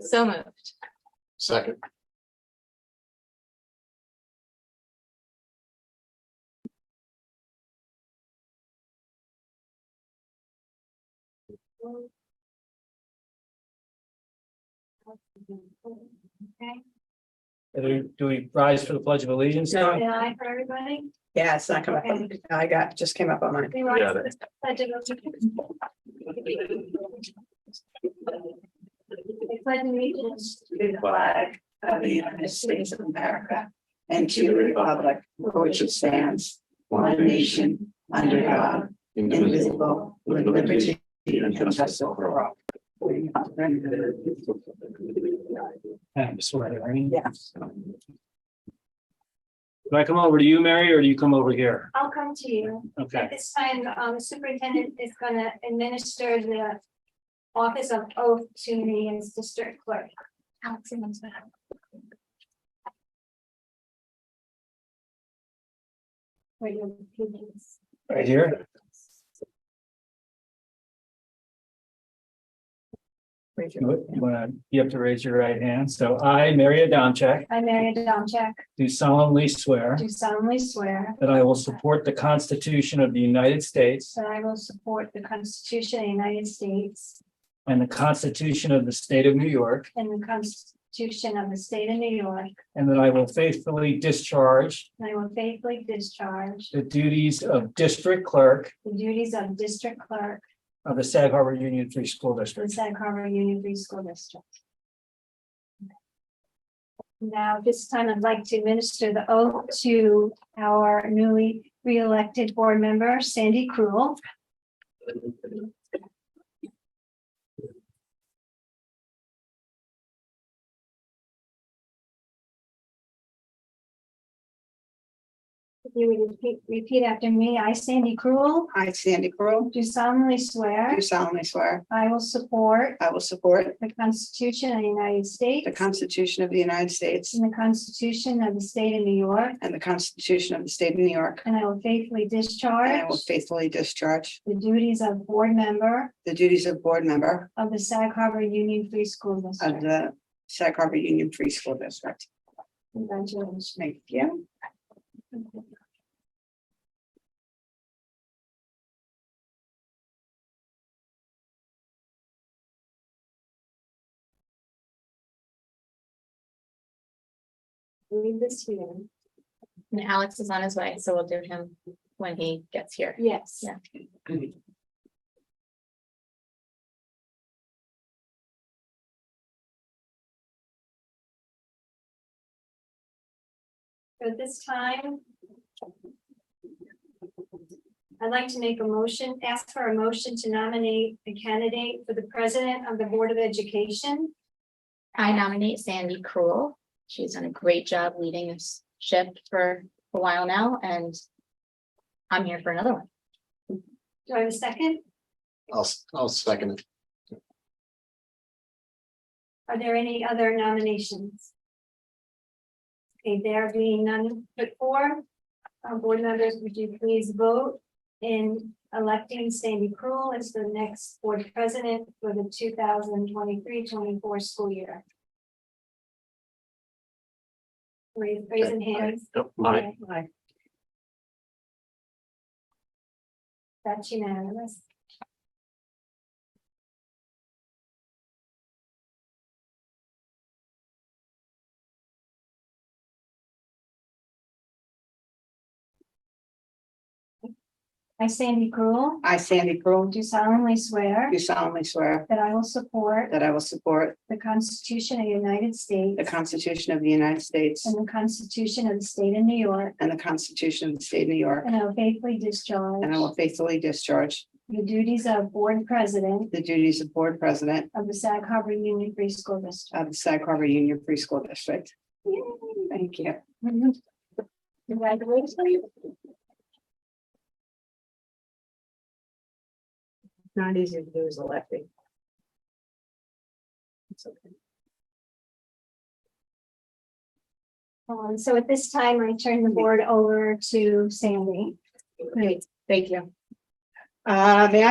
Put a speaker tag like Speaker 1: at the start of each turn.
Speaker 1: So moved.
Speaker 2: Second.
Speaker 3: Do we- do we rise for the Pledge of Allegiance?
Speaker 4: No,
Speaker 1: Did I for everybody?
Speaker 4: yeah, it's not coming up. I got, just came up on mine.
Speaker 1: We want
Speaker 2: Got
Speaker 1: to- I did not- I pledge allegiance
Speaker 4: To the flag of the United States of America and to the republic for which it stands, one nation, under God, indivisible, with liberty and justice for all.
Speaker 3: I'm sorry, Irene.
Speaker 4: Yeah.
Speaker 3: Do I come over to you, Mary, or do you come over here?
Speaker 1: I'll come to you. At
Speaker 3: Okay,
Speaker 1: this time, um, the superintendent is gonna administer the office of oath to me as district clerk. Alex, I'm sorry. Wait, you- you can-
Speaker 3: right here. You want to, you have to raise your right hand. So I, Mary Adamczyk,
Speaker 1: I, Mary Domcheck,
Speaker 3: do solemnly swear
Speaker 1: do solemnly swear
Speaker 3: that I will support the Constitution of the United States
Speaker 1: that I will support the Constitution of the United States
Speaker 3: and the Constitution of the State of New York,
Speaker 1: and the Constitution of the State of New York,
Speaker 3: and that I will faithfully discharge
Speaker 1: and I will faithfully discharge
Speaker 3: the duties of District Clerk
Speaker 1: the duties of district clerk
Speaker 3: of the Sag Harbor Union Free School
Speaker 1: for the
Speaker 3: District.
Speaker 1: Sag Harbor Union Free School District. Now, at this time I'd like to administer the oath to our newly re-elected board member Sandy Cruel. If you would repeat- repeat after me, I Sandy Cruel,
Speaker 4: I, Sandy Crowe,
Speaker 1: do solemnly swear
Speaker 4: do solemnly swear
Speaker 1: I will support
Speaker 4: I will support
Speaker 1: The Constitution of the United States.
Speaker 4: the Constitution of the United States
Speaker 1: And the Constitution of the State of New York.
Speaker 4: and the Constitution of the State of New York,
Speaker 1: And I will faithfully
Speaker 4: and I
Speaker 1: discharge
Speaker 4: will faithfully discharge
Speaker 1: the duties of board member
Speaker 4: the duties of board member
Speaker 1: of the Sag Harbor Union Free School
Speaker 4: of
Speaker 1: District.
Speaker 4: the Sag Harbor Union Free School District.
Speaker 1: Congratulations.
Speaker 4: Thank you.
Speaker 1: Leave this here.
Speaker 5: And Alex is on his way, so we'll do him when he gets here.
Speaker 1: Yes.
Speaker 5: Yeah.
Speaker 1: So At this time. I'd like to make a motion, ask for a motion to nominate a candidate for the president of the Board of Education.
Speaker 5: I nominate Sandy Cruel. She's done a great job leading this ship for a while now, and I'm here for another one.
Speaker 1: Do I have a second?
Speaker 2: I'll, s- I'll second it.
Speaker 1: Are there any other nominations? Okay, there being none put forward, uh, board members, would you please vote in electing Sandy Cruel as the next board president for the 2023-24 school year? Raise, raising hands.
Speaker 2: Aye.
Speaker 4: Aye.
Speaker 1: That's unanimous. I, Sandy Gruel,
Speaker 4: I, Sandy Crowe,
Speaker 1: do solemnly swear
Speaker 4: do solemnly swear
Speaker 1: that I will support
Speaker 4: that I will support
Speaker 1: the Constitution of the United States
Speaker 4: the Constitution of the United States
Speaker 1: and the Constitution of the State of New York,
Speaker 4: and the Constitution of the State of New York,
Speaker 1: and I will faithfully discharge
Speaker 4: and I will faithfully discharge
Speaker 1: the duties of board president
Speaker 4: the duties of board president
Speaker 1: of the Sag Harbor Union Free School District.
Speaker 4: of the Sag Harbor Union Free School District. Thank you.
Speaker 1: Congratulations.
Speaker 4: Not easy to do as electing. It's okay.
Speaker 1: Um, so at this time, I turn the board over to Sandy.
Speaker 5: Great, thank you.
Speaker 4: Uh, may I